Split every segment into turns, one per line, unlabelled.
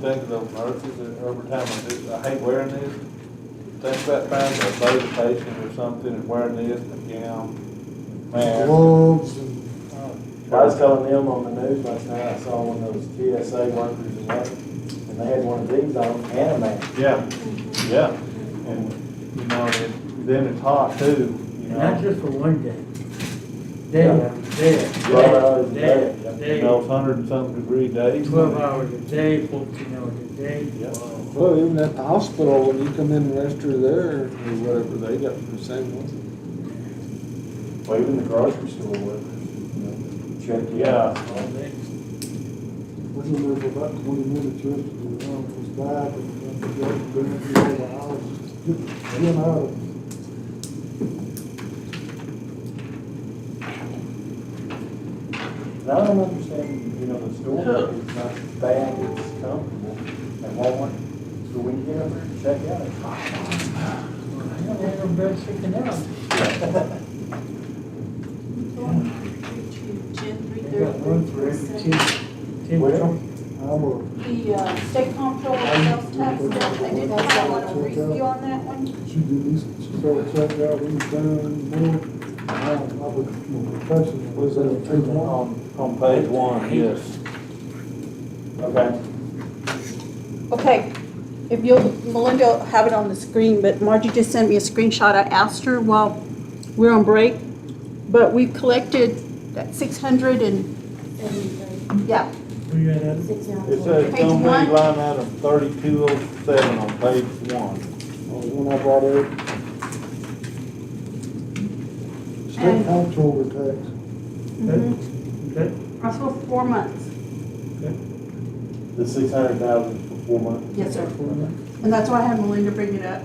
Think of those nurses that every time I do, I hate wearing this. Think about finding a load patient or something and wearing this and gown, mask.
Wolves and,
um,
I was calling them on the news last night, I saw one of those TSA workers in that, and they had one of these on, and a mask.
Yeah, yeah. And, you know, it- then it's hot too, you
Not
know.
just for one day. Day, day,
Twelve hours a
day,
day,
You
day,
know, it's
day,
hundred and something degree days.
twelve hours a day, fourteen hours a day.
Yeah.
well, even at the hospital, when you come in and register there or whatever, they got the same one.
Well, even the grocery store workers, you know, check you out.
Yeah.
All day.
We were there for about twenty minutes yesterday, and I was back, and I forgot to bring it to the house, just get him out of it.
And I don't understand, you know, the store workers, not bad, it's comfortable, and Walmart, so when you get up there and check out, it's hot.
I don't have no bread sticking out. They got one for every ten, ten
Well,
truck.
I'm a,
The uh, state comptroller sales tax, I did not want to review on that one.
she did this, she started checking out, we was down in the morning, and I, I was, my profession was
Was it
that two one.
on,
On page one, yes.
okay,
Okay, if you'll, Melinda will have it on the screen, but Margie just sent me a screenshot. I asked her while we we're on break, but we've collected that 600 and, yeah,
We got a-
It says
Page
don't be
one.
line item thirty-two oh seven on page one.
Oh,
when I brought it,
State comptroller tax,
that- that-
that's for four months.
the six hundred thousand for four months.
Yes, sir. And that's why I had Melinda bring it up.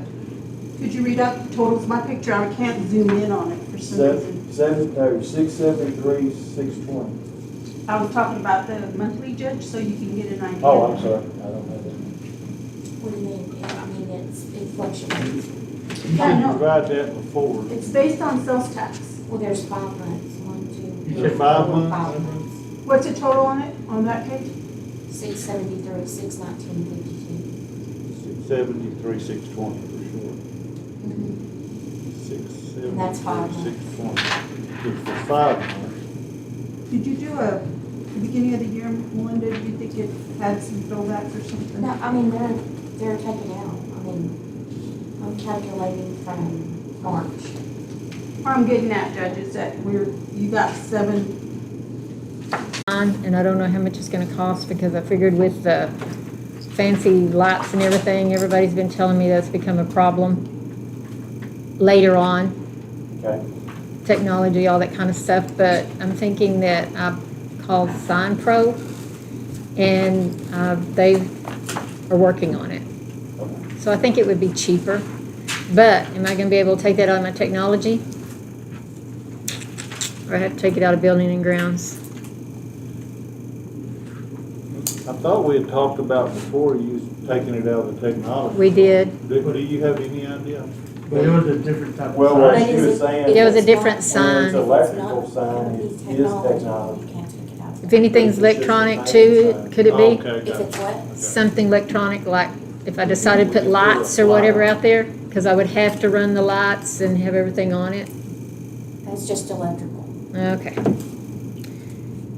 Could you read up the totals? My picture, I can't zoom in on it for some reason.
Seven, seven, no, six seventy-three, six twenty.
I was talking about the monthly judge, so you can get an idea.
Oh, I'm sorry, I don't have that.
What do you mean? Yeah, I mean, it's, it fluctuates.
Yeah, I know.
Tried that before.
It's based on sales tax.
Well, there's five months, one, two.
You
three,
said five
four,
months?
Five months,
What's the total on it, on that page?
six seventy-three, six nineteen, fifty-two.
Seventy-three, six twenty for sure. Six, seven,
That's five
three,
months.
six, twenty. It's for five months.
Did you do a, beginning of the year, Melinda, do you think it had some buildbacks or something?
No, I mean, they're, they're taken out, I mean, I'm calculating from March.
What I'm getting at, Judge, is that we're, you got seven,
on, and I don't know how much it's gonna cost, because I figured with the fancy lights and everything, everybody's been telling me that's become a problem later on,
Okay,
technology, all that kind of stuff, but I'm thinking that I called Sign Pro, and, uh, they are working on it. So I think it would be cheaper, but am I gonna be able to take that out of my technology? Or I have to take it out of building and grounds?
I thought we had talked about before you taking it out of the technology.
We did,
Do, do you have any idea?
But it was a different type of.
well,
sign.
what she was saying.
It was a
is
different
It's not-
When it's
sign.
electrical
it's not-
sign, it
it's
is
technology.
technology.
You can't take it out.
If anything's electronic too, could it
Oh,
be?
Okay,
If
okay.
it's what?
Something electronic, like if I decided to put lights or whatever out there? Because I would have to run the lights and have everything on it?
That's just electrical.
Okay.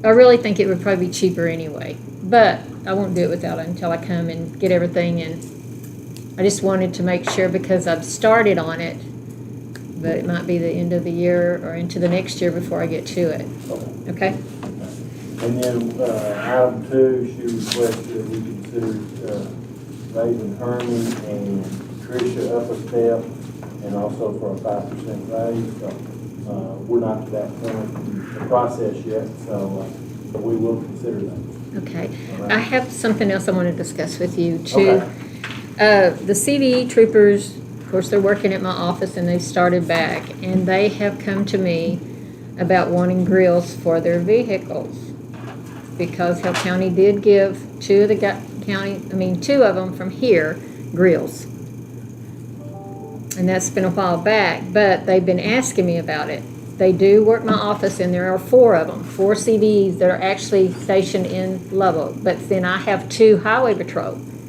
I really think it would probably be cheaper anyway, but I won't do it without it until I come and get everything and I just wanted to make sure because I've started on it, but it might be the end of the year or into the next year before I get to it,
Okay.
okay?
And then, uh, item two, she requested that we consider, uh, raising Herman and Tricia up a step, and also for a five percent raise, so, uh, we're not to that point in the process yet, so, uh, but we will consider that.
Okay.
all
I
right?
have something else I want to discuss with you too.
Okay.
Uh, the CVE troopers, of course, they're working at my office and they've started back and they have come to me about wanting grills for their vehicles. Because Hill County did give two of the gu- county, I mean, two of them from here grills. And that's been a while back, but they've been asking me about it. They do work my office, and there are four of them, four CVs that are actually stationed in Lubbock. But then I have two highway patrol.